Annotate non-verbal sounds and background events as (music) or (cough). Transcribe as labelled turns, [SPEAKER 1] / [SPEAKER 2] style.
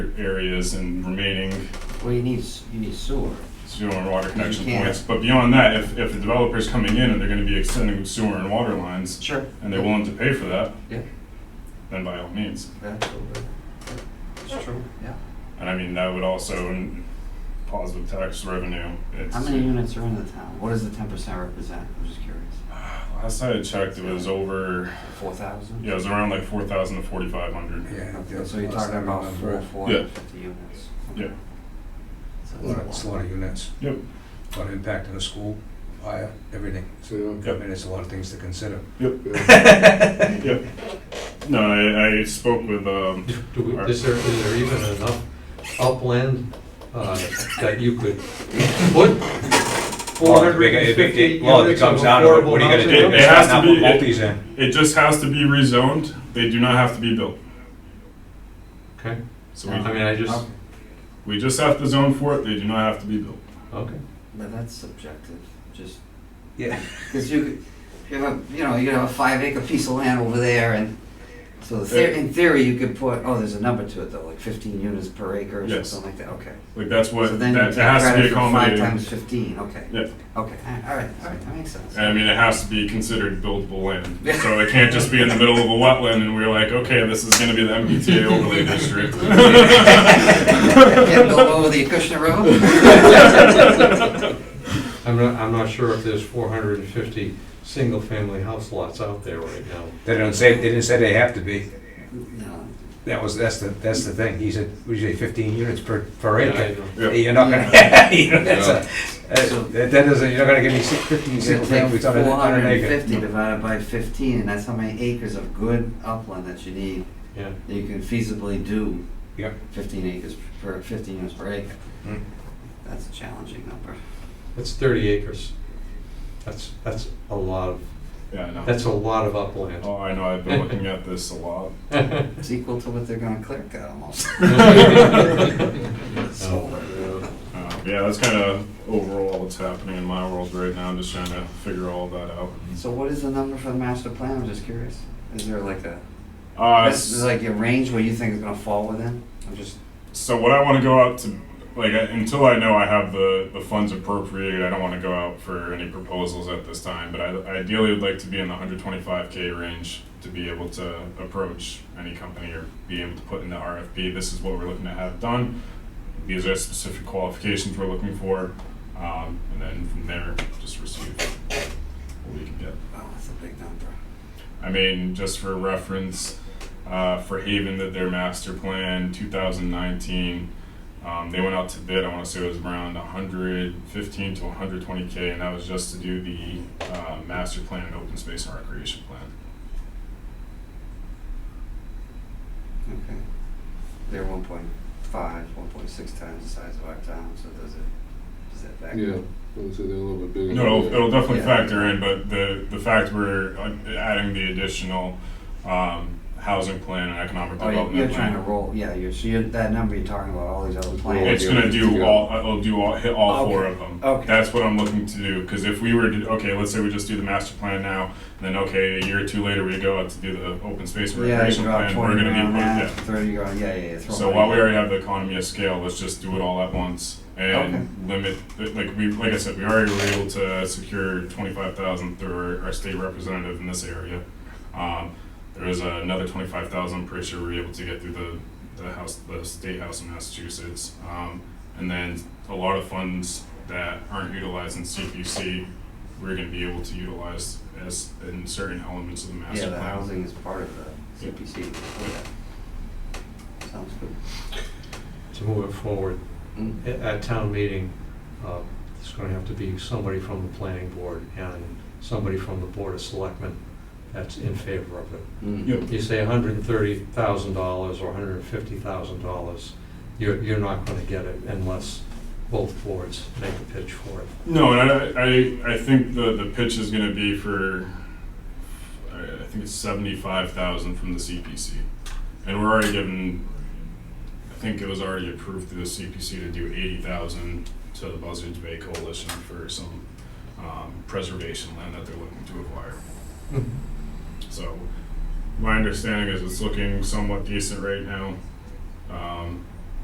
[SPEAKER 1] areas and remaining
[SPEAKER 2] Well, you need, s- you need sewer.
[SPEAKER 1] sewer and water connection
[SPEAKER 2] can't.
[SPEAKER 1] points. But beyond that, if, if the developer's coming in and they're gonna be extending sewer and water lines,
[SPEAKER 2] Sure.
[SPEAKER 1] and they're willing to pay for that,
[SPEAKER 2] Yeah.
[SPEAKER 1] then by all means.
[SPEAKER 2] Absolutely. It's true, yeah.
[SPEAKER 1] And I mean, that would also, n- positive tax revenue. It's-
[SPEAKER 2] How many units are in the town? What does the ten percent represent? I'm just curious.
[SPEAKER 1] Last I had checked, it was over,
[SPEAKER 2] Four thousand?
[SPEAKER 1] yeah, it was around like four thousand to forty-five hundred.
[SPEAKER 3] Yeah.
[SPEAKER 2] So you're talking about four, four
[SPEAKER 1] Yeah.
[SPEAKER 2] hundred fifty units?
[SPEAKER 1] Yeah.
[SPEAKER 2] So
[SPEAKER 3] A lot of- It's
[SPEAKER 2] that's a
[SPEAKER 3] a
[SPEAKER 2] lot.
[SPEAKER 3] lot of units.
[SPEAKER 1] Yep.
[SPEAKER 3] A lot of impact on the school, fire, everything.
[SPEAKER 4] So, you
[SPEAKER 3] I mean, there's a lot of things to consider.
[SPEAKER 4] know,
[SPEAKER 1] (laughs) Yep. No, I, I spoke with, um,
[SPEAKER 5] Do do we, is there, is there even enough upland, uh, that you could put four
[SPEAKER 3] Well, if
[SPEAKER 5] hundred
[SPEAKER 3] it-
[SPEAKER 5] and
[SPEAKER 3] if it-
[SPEAKER 5] fifty
[SPEAKER 3] Well, if it
[SPEAKER 5] units of
[SPEAKER 3] comes down to it,
[SPEAKER 5] affordable
[SPEAKER 3] what are you gonna
[SPEAKER 5] housing?
[SPEAKER 1] It-
[SPEAKER 3] do?
[SPEAKER 1] it has to
[SPEAKER 3] Not
[SPEAKER 1] be-
[SPEAKER 3] put multis in.
[SPEAKER 1] it just has to be rezoned, they do not have to be built.
[SPEAKER 5] Okay,
[SPEAKER 1] So
[SPEAKER 5] I
[SPEAKER 2] Uh-huh.
[SPEAKER 1] we,
[SPEAKER 5] mean, I
[SPEAKER 2] Oh,
[SPEAKER 5] just,
[SPEAKER 1] we just have to zone for it, they do not have to be built.
[SPEAKER 5] okay.
[SPEAKER 2] But that's subjective, just,
[SPEAKER 3] Yeah.
[SPEAKER 2] because you, could- you have, a you know, you have a five acre piece of land over there and, so the
[SPEAKER 1] Yeah.
[SPEAKER 2] theory, in theory, you could put, oh, there's a number to it though, like fifteen units per acre or
[SPEAKER 1] Yes.
[SPEAKER 2] something like that, okay.
[SPEAKER 1] Like, that's
[SPEAKER 2] So
[SPEAKER 1] what,
[SPEAKER 2] then
[SPEAKER 1] that, that
[SPEAKER 2] you take
[SPEAKER 1] has to
[SPEAKER 2] credit
[SPEAKER 1] be
[SPEAKER 2] for five
[SPEAKER 1] accommodated.
[SPEAKER 2] times fifteen, okay.
[SPEAKER 1] Yeah.
[SPEAKER 2] Okay, all right, all right, that makes sense. (laughs)
[SPEAKER 1] I mean, it has to be considered buildable land. So it can't just be in the middle of a wetland and we're like, okay, this is gonna be the MBTA overlay
[SPEAKER 2] (laughs)
[SPEAKER 1] district. (laughs)
[SPEAKER 2] Yeah, go over the Acushnet
[SPEAKER 1] (laughs)
[SPEAKER 2] Road?
[SPEAKER 5] I'm not, I'm not sure if there's four hundred and fifty single-family house lots out there right now.
[SPEAKER 3] They don't say, they didn't say they have to be.
[SPEAKER 2] (laughs) No,
[SPEAKER 3] That was, that's the, that's the thing. He said, we say fifteen units per, per
[SPEAKER 5] Yeah, I
[SPEAKER 3] acre.
[SPEAKER 5] don't-
[SPEAKER 1] Yeah.
[SPEAKER 3] You're not gonna, you know, (laughs) that's a, that that doesn't, you're not gonna give me six- fifteen
[SPEAKER 2] You
[SPEAKER 3] single
[SPEAKER 2] could take
[SPEAKER 3] families on an-
[SPEAKER 2] four
[SPEAKER 3] on
[SPEAKER 2] hundred
[SPEAKER 3] an
[SPEAKER 2] and
[SPEAKER 3] acre.
[SPEAKER 2] fifty divided by fifteen, and that's how many acres of good upland that you need,
[SPEAKER 5] Yeah,
[SPEAKER 2] that you can feasibly do
[SPEAKER 3] Yep.
[SPEAKER 2] fifteen acres per, fifteen units per acre.
[SPEAKER 3] Hmm.
[SPEAKER 2] That's a challenging number.
[SPEAKER 5] that's thirty acres. That's, that's a lot of,
[SPEAKER 1] Yeah, I know.
[SPEAKER 5] that's a lot of upland. (laughs)
[SPEAKER 1] Oh, I know, I've been looking at this a lot.
[SPEAKER 2] It's equal to what they're gonna clear cut
[SPEAKER 3] (laughs)
[SPEAKER 2] almost. (laughs)
[SPEAKER 3] Oh,
[SPEAKER 5] No.
[SPEAKER 1] Uh, Yeah, that's kind of overall what's happening in my world right now, just trying to figure all that out.
[SPEAKER 2] So what is the number for the master plan? I'm just curious. Is there like a,
[SPEAKER 1] Uh,
[SPEAKER 2] this is like your range where you think it's gonna fall within? I'm just,
[SPEAKER 1] So what I want to go out to, like, I- until I know I have the, the funds appropriated, I don't want to go out for any proposals at this time. But I ideally would like to be in the 125K range to be able to approach any company or be able to put in the RFP, this is what we're looking to have done. These are specific qualifications we're looking for. Um, and then from there, just receive what we can get.
[SPEAKER 2] oh, that's a big number.
[SPEAKER 1] I mean, just for reference, uh, for Haven, that their master plan 2019, um, they went out to bid. I want to say it was around 115 to 120k, and that was just to do the uh, master plan and open space and recreation plan.
[SPEAKER 2] Okay. They're one point five, one point six times the size of our town, so does it, does that factor?
[SPEAKER 4] yeah, I'd say they're a little bit bigger.
[SPEAKER 1] No, it'll, it'll definitely
[SPEAKER 2] Yeah.
[SPEAKER 1] factor in, but the the fact we're uh, adding the additional um, housing plan and economic
[SPEAKER 2] Oh,
[SPEAKER 1] development
[SPEAKER 2] you- you're
[SPEAKER 1] plan.
[SPEAKER 2] trying to roll, yeah, you're, so you're, that number you're talking about, all these other
[SPEAKER 1] It's
[SPEAKER 2] plans.
[SPEAKER 1] gonna do
[SPEAKER 4] Yeah.
[SPEAKER 1] all, uh, it'll do all, hit all four
[SPEAKER 2] Okay.
[SPEAKER 1] of them.
[SPEAKER 2] Okay.
[SPEAKER 1] That's what I'm looking to do, cause if we were to, okay, let's say we just do the master plan now, and then, okay, a year or two later, we go out to do the open space and
[SPEAKER 2] Yeah, you
[SPEAKER 1] recreation
[SPEAKER 2] drop
[SPEAKER 1] plan, we're
[SPEAKER 2] twenty
[SPEAKER 1] gonna be,
[SPEAKER 2] grand on that,
[SPEAKER 1] yeah.
[SPEAKER 2] thirty grand, yeah, yeah, yeah. throw
[SPEAKER 1] So
[SPEAKER 2] money
[SPEAKER 1] while we
[SPEAKER 2] at it.
[SPEAKER 1] already have the economy of scale, let's just do it all at once and limit, like we, like I said, we already were able to secure twenty-five thousand through our, our state representative in this area. Um, there was another twenty-five thousand, pretty sure we were able to get through the, the house, the state house in Massachusetts. Um, and then a lot of funds that aren't utilized in CPC, we're gonna be able to utilize as, in certain elements of the
[SPEAKER 2] Yeah,
[SPEAKER 1] master
[SPEAKER 2] the
[SPEAKER 1] plan.
[SPEAKER 2] housing is part of the CPC. Sounds good.
[SPEAKER 5] To move it forward,
[SPEAKER 2] Mm.
[SPEAKER 5] at, at town meeting, uh, there's gonna have to be somebody from the planning board and somebody from the board of selectmen that's in favor of it.
[SPEAKER 2] Mm.
[SPEAKER 1] Yep.
[SPEAKER 5] You say hundred and thirty thousand dollars or hundred and fifty thousand dollars, you're, you're not gonna get it unless both boards make a pitch for it.
[SPEAKER 1] No, and I, I, I think the, the pitch is gonna be for, I I think it's seventy-five thousand from the CPC. And we're already given, I think it was already approved through the CPC to do eighty thousand to the Buzzards Bay Coalition for some, um, preservation land that they're looking to acquire. So, my understanding is it's looking somewhat decent right now. Um,